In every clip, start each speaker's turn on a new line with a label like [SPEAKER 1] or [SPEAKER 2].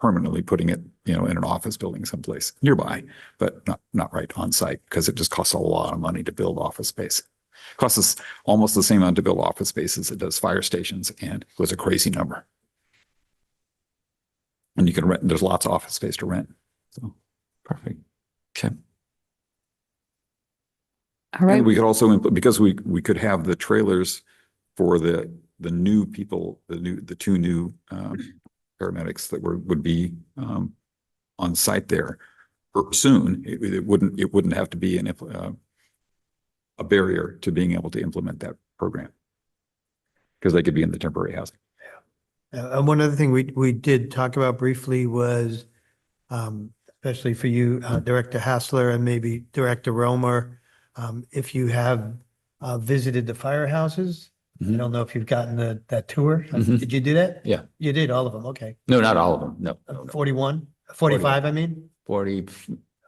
[SPEAKER 1] permanently putting it, you know, in an office building someplace nearby, but not, not right on site because it just costs a lot of money to build office space. Costs us almost the same amount to build office space as it does fire stations and it was a crazy number. And you can rent, there's lots of office space to rent. So
[SPEAKER 2] Perfect.
[SPEAKER 3] All right.
[SPEAKER 1] And we could also, impl- because we, we could have the trailers for the, the new people, the new, the two new um, paramedics that were, would be um, on site there er, soon. It, it wouldn't, it wouldn't have to be an, impl- uh, a barrier to being able to implement that program. Because they could be in the temporary housing.
[SPEAKER 4] Uh, And one other thing we, we did talk about briefly was, um, especially for you, uh, Director Hassler and maybe Director Romer, um, if you have, uh, visited the firehouses, I
[SPEAKER 2] Mhm.
[SPEAKER 4] don't know if you've gotten the, that tour. Uh,
[SPEAKER 2] Mhm.
[SPEAKER 4] Did you do that?
[SPEAKER 2] Yeah.
[SPEAKER 4] You did, all of them, okay.
[SPEAKER 2] No, not all of them. No,
[SPEAKER 4] Uh,
[SPEAKER 2] no, no.
[SPEAKER 4] 41, 45, I mean?
[SPEAKER 2] 40,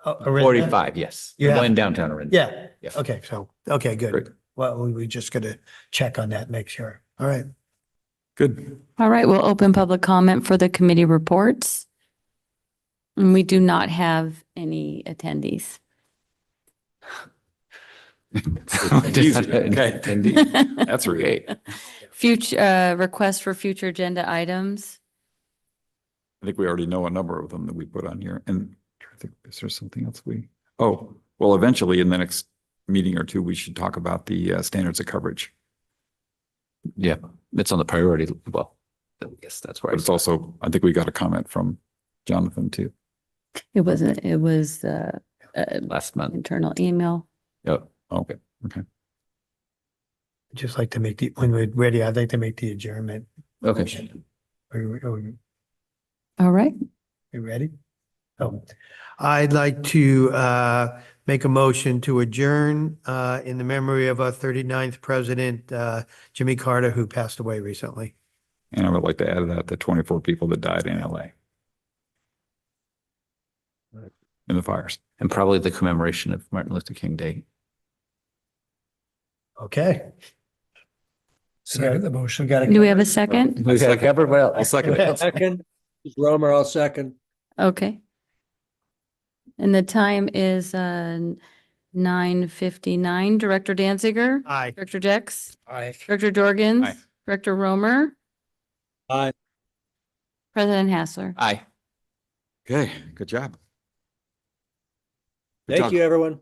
[SPEAKER 4] uh, Arinda?
[SPEAKER 2] 45, yes. The
[SPEAKER 4] Yeah.
[SPEAKER 2] one downtown Arinda.
[SPEAKER 4] Yeah,
[SPEAKER 2] Yeah.
[SPEAKER 4] okay, so, okay,
[SPEAKER 1] Great.
[SPEAKER 4] good. Well, we, we just gotta check on that, make sure. All right.
[SPEAKER 1] Good.
[SPEAKER 3] All right, we'll open public comment for the committee reports. And we do not have any attendees.
[SPEAKER 1] Easy. Okay.
[SPEAKER 2] Indeed.
[SPEAKER 1] That's right.
[SPEAKER 3] Future, uh, request for future agenda items.
[SPEAKER 1] I think we already know a number of them that we put on here and I think, is there something else we, oh, well, eventually in the next meeting or two, we should talk about the uh, standards of coverage.
[SPEAKER 2] Yeah, it's on the priority. Well, I guess that's where.
[SPEAKER 1] But
[SPEAKER 2] I
[SPEAKER 1] it's also, I think we got a comment from Jonathan too.
[SPEAKER 3] It wasn't, it was, uh, uh,
[SPEAKER 2] last month.
[SPEAKER 3] internal email.
[SPEAKER 2] Oh,
[SPEAKER 1] Okay.
[SPEAKER 4] Just like to make the, when we're ready, I'd like to make the adjournment.
[SPEAKER 2] okay.
[SPEAKER 4] Motion. Are you, are you
[SPEAKER 3] All right.
[SPEAKER 4] You ready? Oh, I'd like to uh, make a motion to adjourn uh, in the memory of our 39th president, uh, Jimmy Carter, who passed away recently.
[SPEAKER 1] And I would like to add to that the twenty-four people that died in LA. In the fires.
[SPEAKER 2] And probably the commemoration of Martin Luther King Day.
[SPEAKER 4] Okay.
[SPEAKER 5] Second the motion.
[SPEAKER 4] Got
[SPEAKER 3] Do we have a second?
[SPEAKER 2] We got covered well. I'll second
[SPEAKER 5] Second, Romer, I'll second.
[SPEAKER 3] Okay. And the time is, uh, nine fifty-nine. Director Danziger?
[SPEAKER 4] Aye.
[SPEAKER 3] Director Jex?
[SPEAKER 5] Aye.
[SPEAKER 3] Director Jorgens?
[SPEAKER 1] Aye.
[SPEAKER 3] Director Romer?
[SPEAKER 5] Aye.
[SPEAKER 3] President Hassler?
[SPEAKER 2] Aye.
[SPEAKER 1] Okay, good job. Good job.
[SPEAKER 5] Thank you, everyone.